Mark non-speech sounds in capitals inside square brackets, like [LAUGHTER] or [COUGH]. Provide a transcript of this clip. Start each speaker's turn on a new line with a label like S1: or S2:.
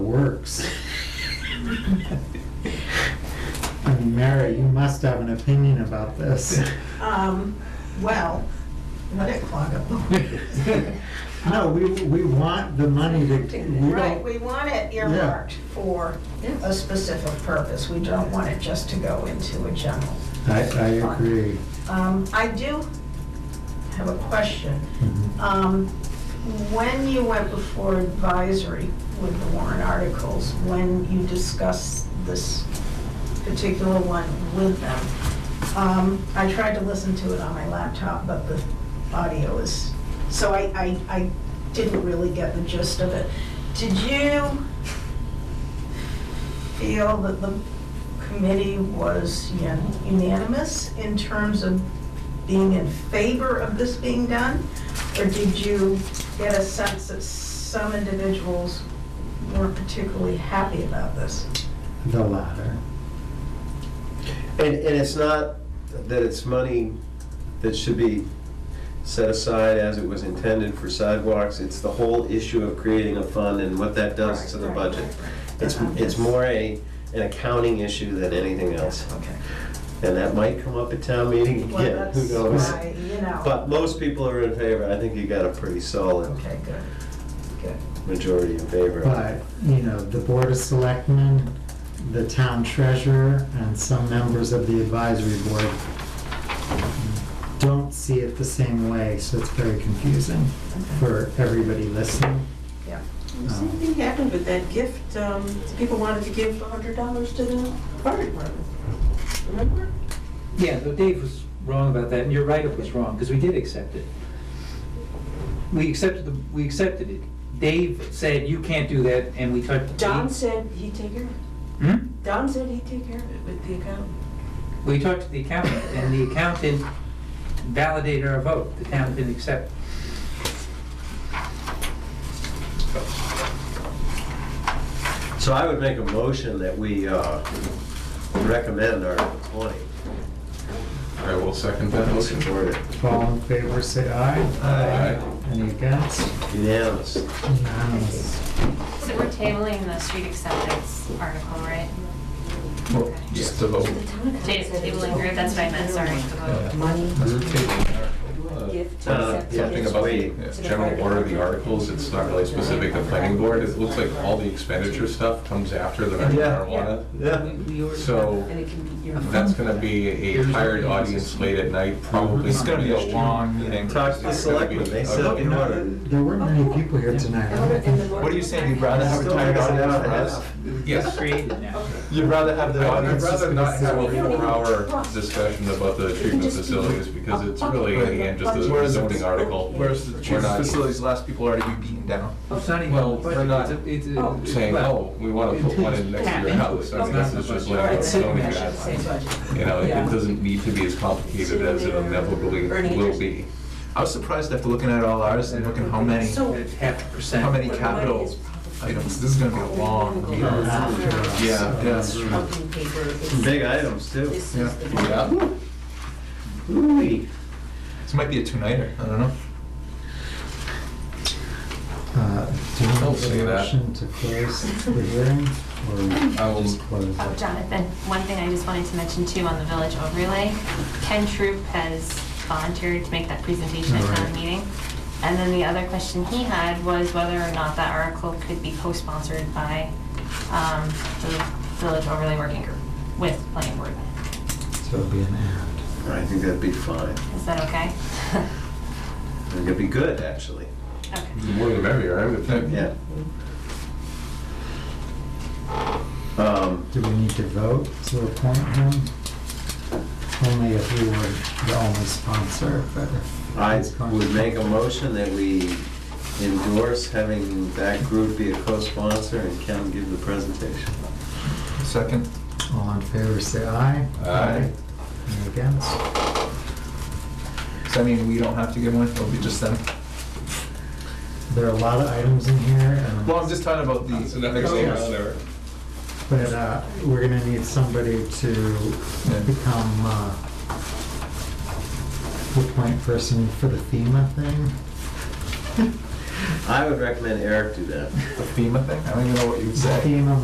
S1: works. I mean, Mary, you must have an opinion about this.
S2: [LAUGHS] Um, well, let it clog up.
S1: No, we, we want the money to, we
S2: Right,
S1: don't,
S2: we want it earmarked for a specific purpose. We don't want it just to go into a general.
S1: I, I agree.
S2: Um, I do have a question. Um, When you went before advisory with the warrant articles, when you discussed this particular one with them, um, I tried to listen to it on my laptop, but the audio is, so I, I, I didn't really get the gist of it. Did you feel that the committee was un- unanimous in terms of being in favor of this being done? Or did you get a sense that some individuals weren't particularly happy about this?
S1: The latter.
S3: And, and it's not that it's money that should be set aside as it was intended for sidewalks, it's the whole issue of creating a fund and what that does to the
S2: Right,
S3: budget.
S2: right, right.
S3: It's,
S2: Uh-huh.
S3: it's more a, an accounting issue than anything else,
S2: Okay.
S3: and that might come up at town meeting
S2: Well,
S3: again, who
S2: that's
S3: knows?
S2: why, you know.
S3: But most people are in favor, I think you got a pretty solid
S2: Okay, good, good.
S3: majority in favor.
S1: But, you know, the Board of Selectmen, the town treasurer, and some members of the advisory board don't see it the same way, so it's very confusing for everybody listening. Um,
S2: Yeah.
S3: um,
S4: The Same thing happened with that gift, um, people wanted to give hundred dollars to the fire department, remember?
S5: Yeah, though Dave was wrong about that, and your write-up was wrong, because we did accept it. We accepted, the we accepted it. Dave said, you can't do that, and we took.
S4: Don
S3: Hmm?
S4: said he'd take care of it.
S5: Hmm?
S4: Don said he'd take care of it with the accountant.
S5: We talked to the accountant, and the accountant validated our vote. The town didn't accept.
S3: So I would make a motion that we uh, recommend Article 20.
S6: I will second that
S3: We'll
S6: motion.
S3: support it.
S1: All in favor, say aye.
S6: Aye.
S1: Any against?
S3: Unanimous.
S1: Unanimous.
S7: So we're tabling the street acceptance article, right?
S6: Well, Just to vote.
S7: Ta- Tabling group, that's what I meant, sorry.
S6: Yeah.
S4: Money,
S6: Uh,
S4: gift,
S3: Uh,
S4: accept.
S3: yeah,
S6: Something about the uh, general order of the articles, it's not really specific to planning board. It looks like all the expenditure stuff comes after the marijuana.
S3: Yeah.
S5: We- we ordered
S6: So
S4: And it can be your.
S6: that's gonna be a tired audience late at night, probably.
S8: It's gonna be a
S6: congestion.
S8: long meeting.
S3: Talk to the selectmen, they said, you know, what?
S1: There weren't many people here tonight. I don't think.
S8: What are you saying, you'd rather have a
S3: Still
S8: tired
S3: makes an
S8: audience
S3: hour and
S8: for
S3: a
S8: us?
S3: half.
S5: that.
S6: Yes.
S5: Created now.
S8: You'd rather have the
S6: I'd
S8: audience
S6: rather
S8: just
S6: not
S8: gonna
S6: have
S8: sit.
S6: a four-hour discussion about the treatment facilities because it's really, in the end, just a
S8: Whereas
S6: zoning article.
S8: Whereas the
S6: We're not-
S8: facilities, last people already be beaten down.
S5: It's not even
S6: Well,
S5: on the budget.
S6: we're not
S5: It's a- it's a-
S6: saying,
S5: well,
S6: oh, we want to put one in next to your house, I mean, this is just like a
S4: Alright, so
S6: zoning
S4: I should say
S6: guideline.
S4: budget.
S6: You know, it it doesn't need to be as complicated as it inevitably will be.
S8: I was surprised after looking at all ours and looking how many,
S6: oh.
S4: So-
S5: It's half a percent.
S8: how many
S4: Money
S8: capital
S4: is probably-
S8: items. This is gonna be a long meeting.
S4: Yeah.
S6: Yeah,
S8: yes.
S4: Company paper, it's-
S3: Big items, too.
S4: This is the.
S6: Yeah.
S3: Ooh-wee.
S8: This might be a two-nighter, I don't know.
S1: Uh, Do you
S6: Don't
S1: want
S6: say
S1: a
S6: that.
S1: motion to close the hearing
S6: I
S1: or
S6: will-
S1: just close
S7: Oh,
S1: it?
S7: Jonathan, one thing I just wanted to mention too on the village overlay, Ken Troop has volunteered to make that presentation at town
S1: Alright.
S7: meeting. And then the other question he had was whether or not that article could be co-sponsored by um, the village overlay working group with planning board.
S1: So it'll be an and.
S3: I think that'd be fine.
S7: Is that okay? [LAUGHS]
S3: I think it'd be good, actually.
S7: Okay.
S6: The more the merrier, I would think.
S3: Yeah. Um,
S1: Do we need to vote to appoint him? Only if we were the only sponsor, but. if
S3: I
S1: he's going-
S3: would make a motion that we endorse having that group be a co-sponsor and Ken give the presentation.
S8: Second?
S1: All in favor, say aye.
S6: Aye.
S1: Any against?
S8: Does that mean we don't have to give one? It'll be just them?
S1: There are a lot of items in here and.
S8: Well, I'm just talking about the
S6: So that
S3: Oh,
S6: makes
S8: next
S6: it
S8: year.
S6: easier.
S1: But uh, we're gonna need somebody to
S8: Yeah.
S1: become uh, the point person for the FEMA thing.
S9: I would recommend Eric do that.
S3: The FEMA thing? I don't even know what you'd say.
S1: FEMA